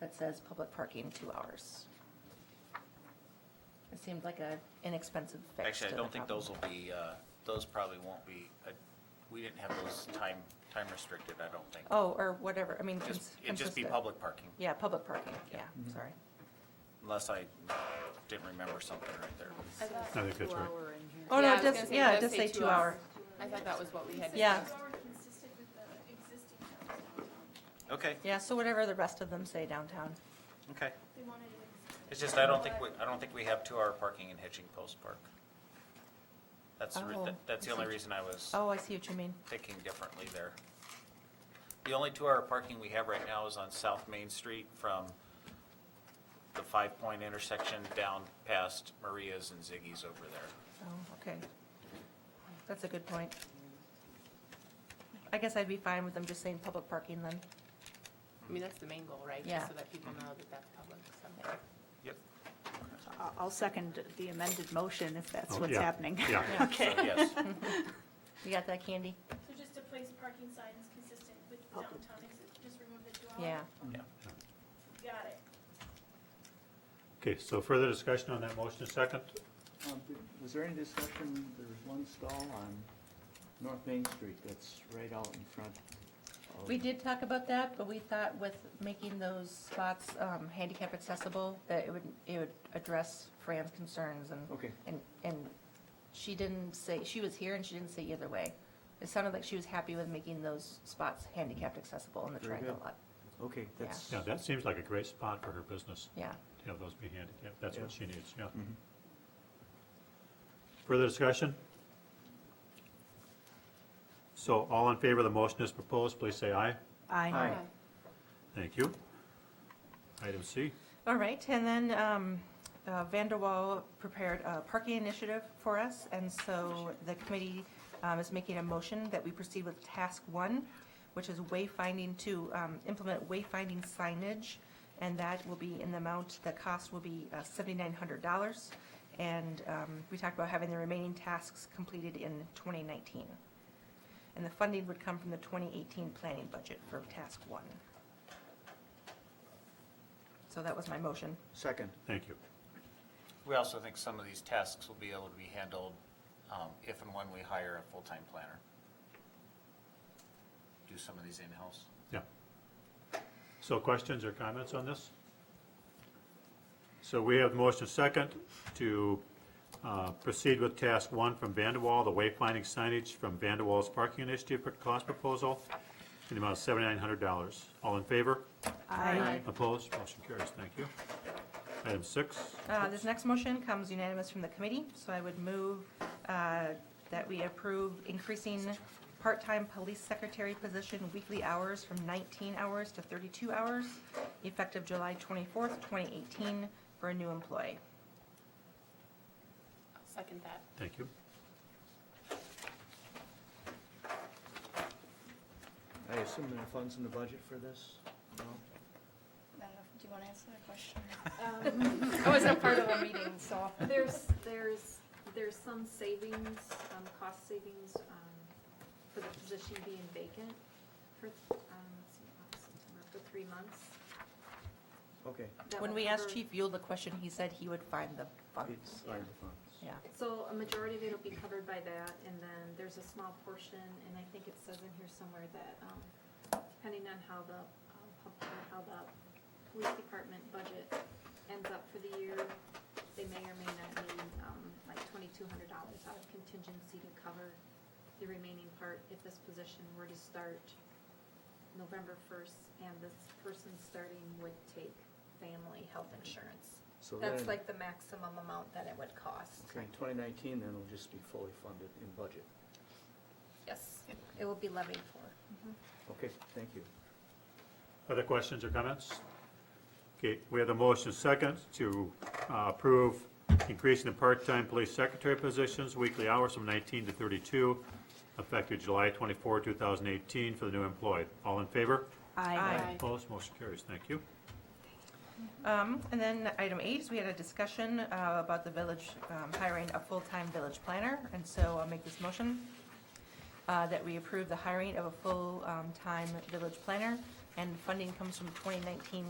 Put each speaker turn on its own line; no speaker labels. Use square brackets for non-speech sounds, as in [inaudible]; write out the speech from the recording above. that says public parking, two hours. It seemed like a inexpensive fix
Actually, I
to the
don't think
problem.
those will be, uh, those probably won't be, uh, we didn't have those time, time restricted, I don't think.
Oh, or whatever, I mean.
Just-
cons-
It'd just be
consistent.
public parking,
Yeah, public parking, yeah, sorry.
unless I didn't remember something right there.
I thought
I think that's right.
two-hour in here.
Oh, no,
Yeah, I
it
was
does,
gonna say,
yeah,
it
it
does
does say
two
two
hours.
hour.
I thought that was what we had.
Yeah.
discussed.
Already consistent with the existing downtown.
Okay,
Yeah, so whatever the rest of them say downtown.
okay.
They wanted it existing.
It's just, I don't think, we I don't think we have two-hour parking in Hitching Post Park. That's, the re-
Oh,
that- that's the
I
only
see.
reason I was
Oh, I see what you mean.
thinking differently there. The only two-hour parking we have right now is on South Main Street from the Five Point intersection down past Maria's and Ziggy's over there.
Oh, okay. That's a good point. I guess I'd be fine with them just saying public parking then.
I mean, that's the main goal, right? Just
Yeah.
So that people know that that's public someday.
Yep.
I'll- I'll second the amended motion if that's
Oh,
what's
yeah,
happening. [laughs]
Yeah,
So, yes.
You got that, Candy?
So just to place parking signs consistent with the
Public.
downtown, exi- just remove the two hour.
Yeah.
Yeah.
Got it.
okay, so further discussion on that motion, second?
Um, th- Was there any discussion, there was one stall on North Main Street that's right out in front of...
We did talk about that, but we thought with making those spots um, handicap accessible, that it would, it would address Fran's concerns and.
Okay.
And, and she didn't say, she was here and she didn't say either way. It sounded like she was happy with making those spots handicapped accessible in the
Very
triangle
good.
lot.
Okay, that's,
Yeah, that seems like a great spot for her business,
Yeah.
to have those be handicapped, that's what
Yeah.
she needs, yeah. Further discussion? So all in favor of the motion as proposed, please say aye.
Aye.
Aye.
Thank you. Item C,
All right, and then um, uh, Vanderwall prepared a parking initiative for us, and so the committee um, is making a motion that we proceed with task one, which is wayfinding to um, implement wayfinding signage, and that will be in the amount, the cost will be uh, $7,900. And um, we talked about having the remaining tasks completed in 2019. And the funding would come from the 2018 planning budget for task one. So that was my motion.
second,
thank you.
We also think some of these tasks will be able to be handled um, if and when we hire a full-time planner. Do some of these in-house.
Yeah. So questions or comments on this? So we have the motion second to uh, proceed with task one from Vanderwall, the wayfinding signage from Vanderwall's parking initiative for cost proposal in the amount of $7,900. All in favor?
Aye.
Opposed? Motion carries. Thank you. Item six,
Uh, This next motion comes unanimous from the committee, so I would move uh, that we approve increasing part-time police secretary position weekly hours from 19 hours to 32 hours, effective July 24th, 2018, for a new employee.
I'll second that.
thank you.
I assume there are funds in the budget for this? No?
I don't know, do you want to answer the question?
I wasn't part of the meeting, so.
There's, there's, there's some savings, um, cost savings, um, for the position being vacant for, um, let's see, August, September, for three months.
Okay,
That
When
will
we asked
cover-
Chief Yule the question, he said he would find the
it's
funds.
fine the funds.
Yeah.
So a majority of it'll be covered by that, and then there's a small portion, and I think it says in here somewhere that, um, depending on how the, um, pub- or how the police department budget ends up for the year, they may or may not need, um, like twenty-two hundred dollars out of contingency to cover the remaining part if this position were to start November first, and this person starting would take family health insurance.
So
That's
then-
like the maximum amount that it would cost.
Okay, 2019 then will just be fully funded in budget.
Yes, it will be levied for.
Okay, thank you.
Other questions or comments? Okay, we have the motion second to uh, approve increasing the part-time police secretary positions, weekly hours from 19 to 32, effective July 24, 2018, for the new employee. All in favor?
Aye.
Opposed? Motion carries. Thank you.
Um, And then item eight is we had a discussion uh, about the village um, hiring a full-time village planner, and so I'll make this motion uh, that we approve um, the hiring of a full-time village planner, and funding comes from 2019